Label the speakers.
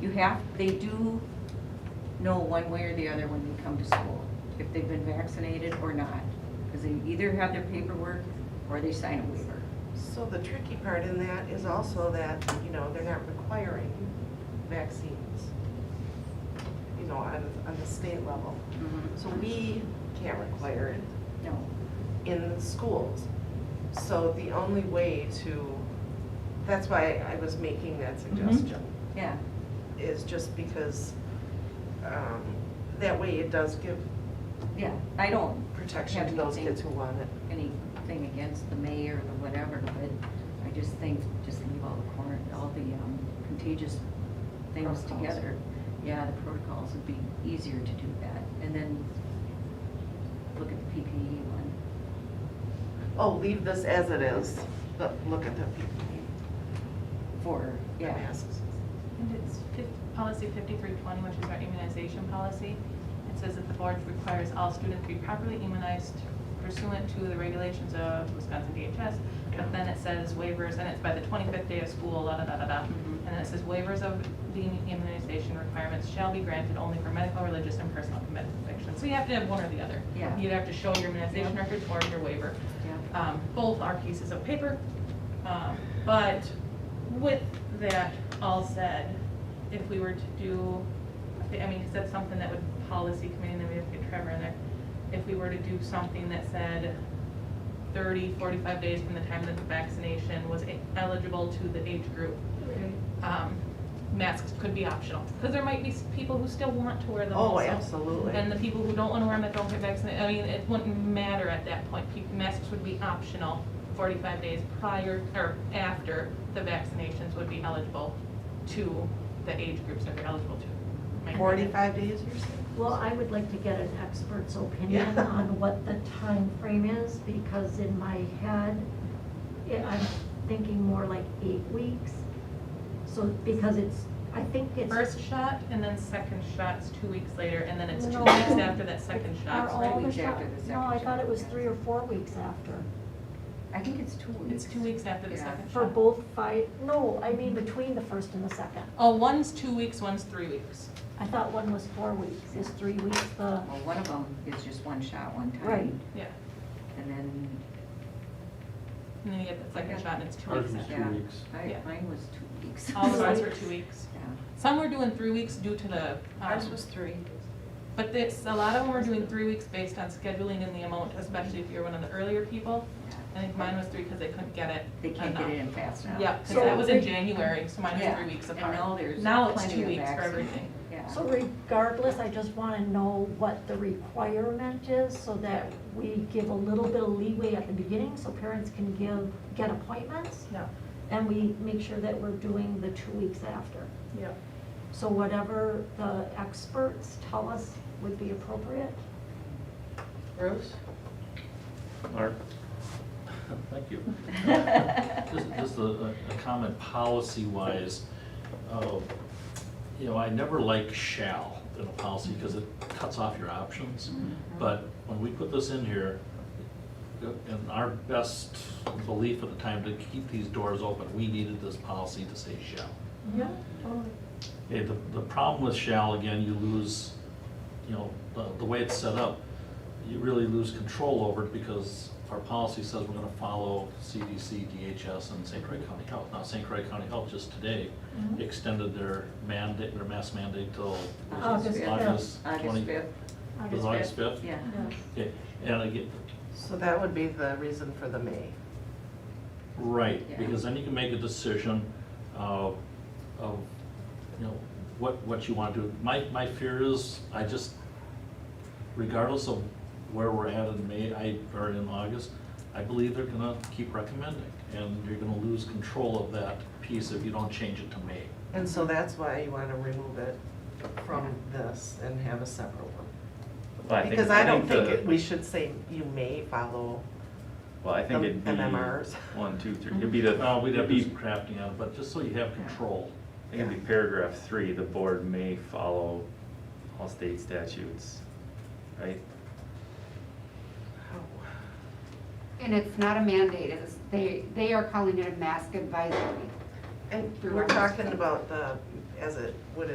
Speaker 1: You have, they do know one way or the other when they come to school, if they've been vaccinated or not. Because they either have their paperwork or they sign a waiver.
Speaker 2: So the tricky part in that is also that, you know, they're not requiring vaccines, you know, on, on the state level. So we can't require it.
Speaker 1: No.
Speaker 2: in the schools. So the only way to, that's why I was making that
Speaker 1: Mm-hmm.
Speaker 2: suggestion,
Speaker 1: Yeah,
Speaker 2: is just because um, that way it does give
Speaker 1: yeah. I don't
Speaker 2: protection
Speaker 1: Have
Speaker 2: to those
Speaker 1: anything.
Speaker 2: kids who want it.
Speaker 1: anything against the mayor or whatever, but I just think, just leave all the corner, all the um, contagious things
Speaker 2: Protocols.
Speaker 1: together. Yeah, the protocols would be easier to do that. And then look at the PPE one.
Speaker 2: Oh, leave this as it is, but look at the PPE,
Speaker 1: For,
Speaker 2: the
Speaker 1: yeah,
Speaker 2: masks.
Speaker 3: And it's fif- policy 5320, which is our immunization policy. It says that the board requires all students to be properly immunized pursuant to the regulations of Wisconsin DHS. But then it says waivers, and it's by the 25th day of school, la da da da da.
Speaker 1: Mhm.
Speaker 3: And then it says waivers of the immunization requirements shall be granted only for medical, religious, and personal convictions. So you have to have one or the other.
Speaker 1: Yeah.
Speaker 3: You either have to show your immunization records or your waiver.
Speaker 1: yeah.
Speaker 3: Um, Both are pieces of paper. Um, But with that all said, if we were to do, I mean, because that's something that would policy committee, and then we have to get Trevor in there. If we were to do something that said 30, 45 days from the time that the vaccination was e-, eligible to the age group, um, masks could be optional. Because there might be s- people who still want to wear them
Speaker 2: Oh,
Speaker 3: also.
Speaker 2: absolutely.
Speaker 3: And the people who don't want to wear them that don't get vaccinated, I mean, it wouldn't matter at that point. Pe- Masks would be optional 45 days prior or after the vaccinations would be eligible to the age groups that they're eligible to. Am I correct?
Speaker 2: Forty-five days, you're saying?
Speaker 4: Well, I would like to get an expert's opinion
Speaker 2: Yeah.
Speaker 4: on what the time frame is, because in my head, it- I'm thinking more like eight weeks. So, because it's, I think it's.
Speaker 3: First shot and then second shot's two weeks later, and then it's two
Speaker 4: No.
Speaker 3: weeks after that second shot.
Speaker 4: are all
Speaker 1: three
Speaker 4: the
Speaker 1: weeks
Speaker 4: shot-
Speaker 1: after the
Speaker 4: No, I
Speaker 1: second
Speaker 4: thought
Speaker 1: shot.
Speaker 4: it was three or four weeks after,
Speaker 1: I think it's two weeks.
Speaker 3: It's two weeks after the
Speaker 1: Yeah.
Speaker 3: second shot.
Speaker 4: for both five, no, I mean between the first and the second.
Speaker 3: Oh, one's two weeks, one's three weeks.
Speaker 4: I thought one was four weeks, is three weeks the,
Speaker 1: Well, one of them is just one shot, one time.
Speaker 4: Right.
Speaker 3: Yeah.
Speaker 1: And then,
Speaker 3: And then you get the second shot and it's two
Speaker 5: Ours
Speaker 3: weeks
Speaker 5: was
Speaker 3: after.
Speaker 5: two
Speaker 1: yeah.
Speaker 5: weeks.
Speaker 1: I-
Speaker 3: Yeah.
Speaker 1: Mine was two weeks.
Speaker 3: All of
Speaker 4: the
Speaker 3: ours were two weeks.
Speaker 1: Yeah.
Speaker 3: Some were doing three weeks due to the,
Speaker 2: Ours
Speaker 3: um,
Speaker 2: was three.
Speaker 3: but this, a lot of them were doing three weeks based on scheduling and the amount, especially if you're one of the earlier people. I think mine was three because they couldn't get it.
Speaker 1: They can't get it
Speaker 3: enough.
Speaker 1: in fast enough.
Speaker 3: Yep, because
Speaker 4: So-
Speaker 3: that was in January, so mine was
Speaker 1: Yeah,
Speaker 3: three weeks
Speaker 1: and
Speaker 3: apart.
Speaker 1: now there's
Speaker 3: Now it's
Speaker 1: plenty
Speaker 3: two
Speaker 1: of
Speaker 3: weeks for
Speaker 1: vaccine.
Speaker 3: everything.
Speaker 1: Yeah.
Speaker 4: so regardless, I just wanna know what the requirement is, so that we give a little bit of leeway at the beginning, so parents can give, get appointments,
Speaker 3: No,
Speaker 4: and we make sure that we're doing the two weeks after.
Speaker 3: yep.
Speaker 4: So whatever the experts tell us would be appropriate.
Speaker 2: Bruce?
Speaker 5: Mark? Thank you. Just, just a, a a comment policy-wise, uh, you know, I never like shall in a policy because it cuts off your options. But when we put this in here, in our best belief at the time to keep these doors open, we needed this policy to say shall.
Speaker 3: Yeah.
Speaker 5: Okay, the, the problem with shall, again, you lose, you know, the, the way it's set up, you really lose control over it because our policy says we're gonna follow CDC, DHS, and St. Croix County Health. Now, St. Croix County Health just today
Speaker 4: Mhm.
Speaker 5: extended their mandate, their mask mandate till
Speaker 4: August fifth.
Speaker 5: August
Speaker 1: August
Speaker 5: twenty.
Speaker 1: fifth,
Speaker 5: it was August fifth?
Speaker 1: yeah.
Speaker 5: Okay, and again,
Speaker 2: So that would be the reason for the May.
Speaker 5: Right,
Speaker 1: Yeah.
Speaker 5: because then you can make a decision uh, of, you know, what, what you want to do. My, my fear is, I just, regardless of where we're at in May, I, or in August, I believe they're gonna keep recommending, and you're gonna lose control of that piece if you don't change it to May.
Speaker 2: And so that's why you want to remove it from this and have a separate one.
Speaker 6: Well, I think-
Speaker 2: Because I don't think
Speaker 6: the-
Speaker 2: it- we should say you may follow.
Speaker 6: Well, I think
Speaker 2: the
Speaker 6: it'd be.
Speaker 2: MMRs.
Speaker 6: One, two, three, it'd be the,
Speaker 5: Uh, We'd
Speaker 6: it'd
Speaker 5: have
Speaker 6: be,
Speaker 5: to do some crafting on it, but just so you have control.
Speaker 6: I think it'd be paragraph three, the board may follow all state statutes, right?
Speaker 2: Oh.
Speaker 7: And it's not a mandate, it's, they, they are calling it a mask advisory.
Speaker 2: And we're talking about the, as it would